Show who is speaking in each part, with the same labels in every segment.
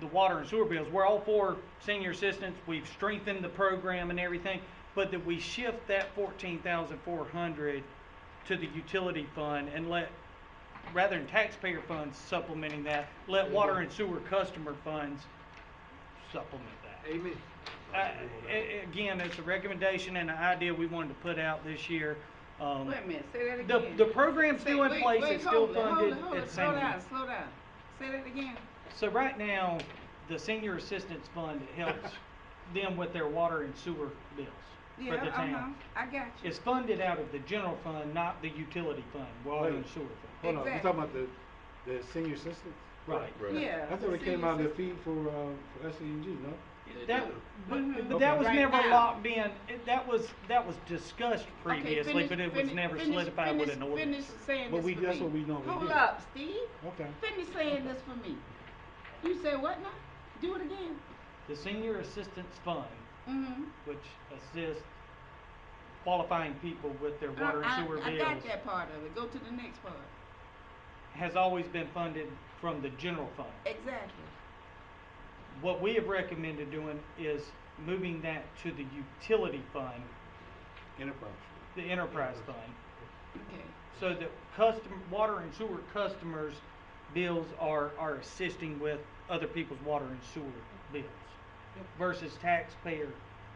Speaker 1: the water and sewer bills. We're all for senior assistance, we've strengthened the program and everything, but that we shift that fourteen thousand four hundred to the utility fund and let, rather than taxpayer funds supplementing that, let water and sewer customer funds supplement that.
Speaker 2: Amen.
Speaker 1: I- a- again, it's a recommendation and an idea we wanted to put out this year. Um,
Speaker 3: Wait a minute, say that
Speaker 1: The-
Speaker 3: again.
Speaker 1: the program's still
Speaker 3: Say-
Speaker 1: in
Speaker 3: wait,
Speaker 1: place,
Speaker 3: wait,
Speaker 1: it's still
Speaker 3: hold it, hold
Speaker 1: funded,
Speaker 3: it, hold
Speaker 1: it's
Speaker 3: it, Slow
Speaker 1: same.
Speaker 3: down, slow down. Say that again.
Speaker 1: So right now, the senior assistance fund helps them with their water and sewer bills for
Speaker 3: Yeah,
Speaker 1: the
Speaker 3: uh-huh,
Speaker 1: town.
Speaker 3: I got you.
Speaker 1: It's funded out of the general fund, not the utility fund, water and sewer fund.
Speaker 2: Hold on, you
Speaker 3: Exactly.
Speaker 2: talking about the, the senior assistance?
Speaker 1: Right.
Speaker 4: Right.
Speaker 3: Yeah.
Speaker 2: I thought
Speaker 3: the
Speaker 2: it came out of
Speaker 3: senior
Speaker 2: the fee for, uh, for S E and G, no?
Speaker 4: They
Speaker 1: That,
Speaker 4: do.
Speaker 1: but, but
Speaker 2: Okay.
Speaker 1: that was
Speaker 3: Mm-hmm. Right
Speaker 1: never
Speaker 3: now.
Speaker 1: locked in, It- that was, that was discussed
Speaker 3: Okay,
Speaker 1: previously,
Speaker 3: finish-
Speaker 1: but it was
Speaker 3: finish-
Speaker 1: never
Speaker 3: finish-
Speaker 1: solidified with
Speaker 3: finish-
Speaker 1: an ordinance.
Speaker 3: Finish saying
Speaker 2: But
Speaker 3: this
Speaker 2: we-
Speaker 3: for
Speaker 2: that's
Speaker 3: me.
Speaker 2: what we normally
Speaker 3: Hold
Speaker 2: do.
Speaker 3: up, Steve.
Speaker 2: Okay.
Speaker 3: Finish saying this for me. You said what now? Do it again.
Speaker 1: The senior assistance fund,
Speaker 3: Mm-hmm.
Speaker 1: which assists qualifying people with their water and sewer
Speaker 3: Uh, I
Speaker 1: bills,
Speaker 3: got that part of it. Go to the next part.
Speaker 1: has always been funded from the general fund.
Speaker 3: Exactly.
Speaker 1: What we have recommended doing is moving that to the utility fund,
Speaker 2: Enterprise.
Speaker 1: the enterprise fund,
Speaker 3: Okay.
Speaker 1: so that custom, water and sewer customers' bills are, are assisting with other people's water and sewer bills versus taxpayer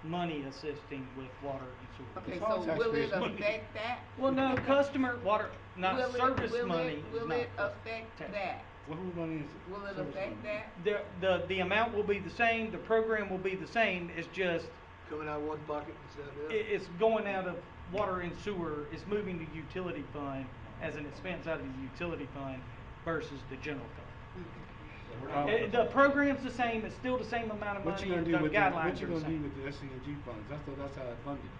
Speaker 1: money assisting with water and sewer.
Speaker 3: Okay,
Speaker 1: bills.
Speaker 2: It's
Speaker 3: so
Speaker 2: all
Speaker 3: will it
Speaker 2: taxpayers' money.
Speaker 3: affect that?
Speaker 1: Well, no, customer, water, not
Speaker 3: Will it-
Speaker 1: service
Speaker 3: will it-
Speaker 1: money is
Speaker 3: Will
Speaker 1: not
Speaker 3: it
Speaker 1: cus-
Speaker 3: affect
Speaker 1: tax.
Speaker 3: that?
Speaker 2: What, whose money is it?
Speaker 3: Will it
Speaker 2: Service
Speaker 3: affect
Speaker 2: money.
Speaker 3: that?
Speaker 1: The, the, the amount will be the same, the program will be the same, it's just
Speaker 5: Coming out of one pocket instead of the
Speaker 1: It,
Speaker 5: other.
Speaker 1: it's going out of water and sewer, it's moving to utility fund as an expense out of the utility fund versus the general fund.
Speaker 3: Mm-hmm.
Speaker 2: How-
Speaker 1: Eh, The program's the same, it's still the same amount of
Speaker 2: What you
Speaker 1: money,
Speaker 2: gonna
Speaker 1: the
Speaker 2: do with, the- what
Speaker 1: guidelines
Speaker 2: you
Speaker 1: are the
Speaker 2: gonna do
Speaker 1: same.
Speaker 2: with the S E and G funds? I thought that's how it funded.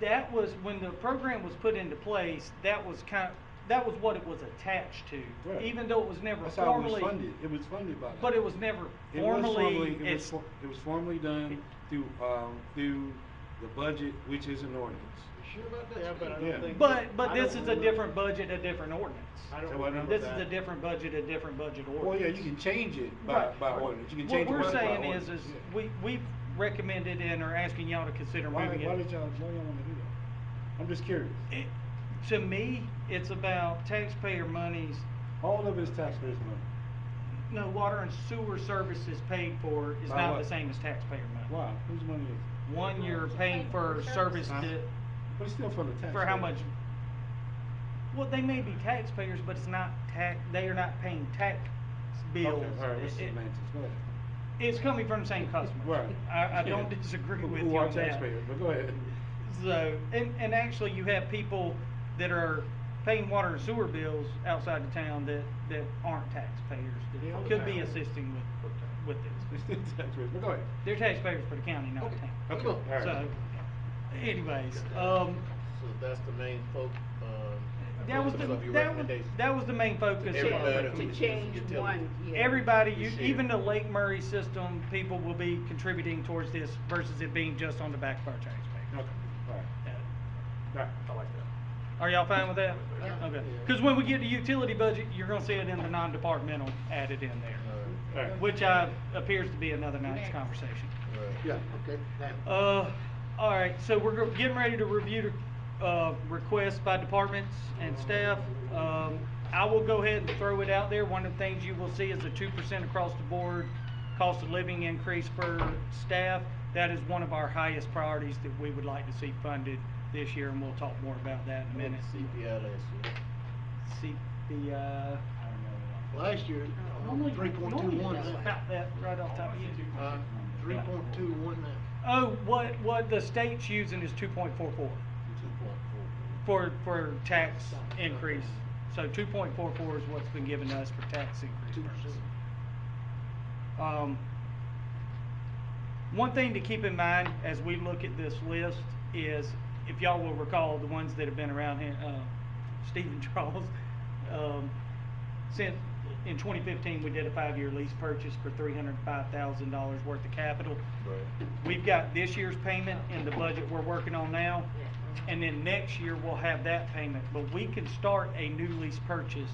Speaker 1: That was, when the program was put into place, that was kind, that was what it was attached to.
Speaker 2: Right.
Speaker 1: Even though it was never
Speaker 2: That's how it
Speaker 1: formally.
Speaker 2: was funded. It was funded by that.
Speaker 1: But it was never
Speaker 2: It was
Speaker 1: formally,
Speaker 2: formally- It was,
Speaker 1: it's,
Speaker 2: for- it was formally done through, um, through the budget, which is an ordinance.
Speaker 5: You sure about that?
Speaker 6: Yeah, but I
Speaker 2: Yeah.
Speaker 6: don't think.
Speaker 1: but, but
Speaker 6: I don't
Speaker 1: this is a
Speaker 6: remember-
Speaker 1: different budget, a different ordinance.
Speaker 6: I
Speaker 2: So
Speaker 6: don't
Speaker 2: what
Speaker 6: remember
Speaker 1: This
Speaker 6: that.
Speaker 1: is a different budget, a different budget ordinance.
Speaker 2: Well, yeah, you can change it by,
Speaker 1: Right.
Speaker 2: by ordinance. You can change it by by
Speaker 1: What we're
Speaker 2: ordinance.
Speaker 1: saying is, is
Speaker 2: Yeah.
Speaker 1: we, we've recommended and are asking y'all to consider
Speaker 2: Why,
Speaker 1: moving
Speaker 2: why did
Speaker 1: it. Eh.
Speaker 2: y'all, why y'all wanna do that? I'm just curious.
Speaker 1: It- To me, it's about taxpayer monies,
Speaker 2: All of it is taxpayers' money.
Speaker 1: no, water and sewer services paid for is
Speaker 2: By
Speaker 1: not
Speaker 2: what?
Speaker 1: the same as taxpayer money.
Speaker 2: Why? Whose money is it?
Speaker 1: One, you're paying for service
Speaker 2: Huh?
Speaker 1: to,
Speaker 2: But it's still from the taxpayer.
Speaker 1: for how much? Well, they may be taxpayers, but it's not tax, they are not paying tax
Speaker 2: Okay,
Speaker 1: bills. Eh,
Speaker 2: all right, that's
Speaker 1: It- it-
Speaker 2: semantics. Go ahead.
Speaker 1: It's coming from the same customers.
Speaker 2: Right.
Speaker 1: I, I don't
Speaker 2: Yeah.
Speaker 1: disagree
Speaker 2: Who-
Speaker 1: with
Speaker 2: who
Speaker 1: you
Speaker 2: are
Speaker 1: on that.
Speaker 2: taxpayers, But go ahead.
Speaker 1: So, and, and actually you have people that are paying water and sewer bills outside the town that, that aren't taxpayers,
Speaker 2: Yeah,
Speaker 1: that could be
Speaker 2: okay.
Speaker 1: assisting with, with this.
Speaker 2: It's still taxpayers, but go ahead.
Speaker 1: They're taxpayers for the county, not the town.
Speaker 2: Okay, all right.
Speaker 1: So, anyways, um,
Speaker 6: So that's the main folk, um.
Speaker 1: that was the,
Speaker 6: focus of your
Speaker 1: that was,
Speaker 6: recommendation.
Speaker 1: that was the main focus. of our
Speaker 6: Everybody.
Speaker 3: To
Speaker 1: recommendation.
Speaker 3: change
Speaker 6: Utility.
Speaker 3: one, yeah.
Speaker 1: Everybody, you,
Speaker 6: This year.
Speaker 1: even the Lake Murray system, people will be contributing towards this versus it being just on the back of our taxpayers.
Speaker 2: Okay, all right, all right.
Speaker 1: I like that. Are y'all fine with that?
Speaker 3: Yeah.
Speaker 1: Okay, because when we get to utility budget, you're gonna see it in the non-departmental added in there,
Speaker 6: Alright,
Speaker 2: All right.
Speaker 1: which uh, appears to be another night's
Speaker 3: Next.
Speaker 1: conversation.
Speaker 6: alright.
Speaker 5: Yeah, okay.
Speaker 1: Uh, all right, so we're go- getting ready to review the, uh, requests by departments and staff. Um, I will go ahead and throw it out there. One of the things you will see is a two percent across the board cost of living increase for staff. That is one of our highest priorities that we would like to see funded this year, and we'll talk more about that in a
Speaker 6: I went
Speaker 1: minute.
Speaker 6: to CPI last year.
Speaker 1: CPI, I don't know.
Speaker 5: Last year, three point two
Speaker 1: Normally
Speaker 5: one.
Speaker 1: it's About that, right off the top of your head.
Speaker 5: Uh, three point two one now.
Speaker 1: Oh, what, what the state's using is two point four four
Speaker 6: Two point four.
Speaker 1: for, for tax increase. So two point four four is what's been given to us for tax increase purposes. Um, one thing to keep in mind as we look at this list is, if y'all will recall, the ones that have been around here, uh, Stephen Charles, um, since, in twenty fifteen, we did a five-year lease purchase for three hundred and five thousand dollars worth of capital.
Speaker 6: Right.
Speaker 1: We've got this year's payment in the budget we're working on now, and then next year we'll have that payment. But we can start a new lease purchase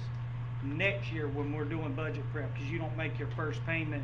Speaker 1: next year when we're doing budget prep, because you don't make your first payment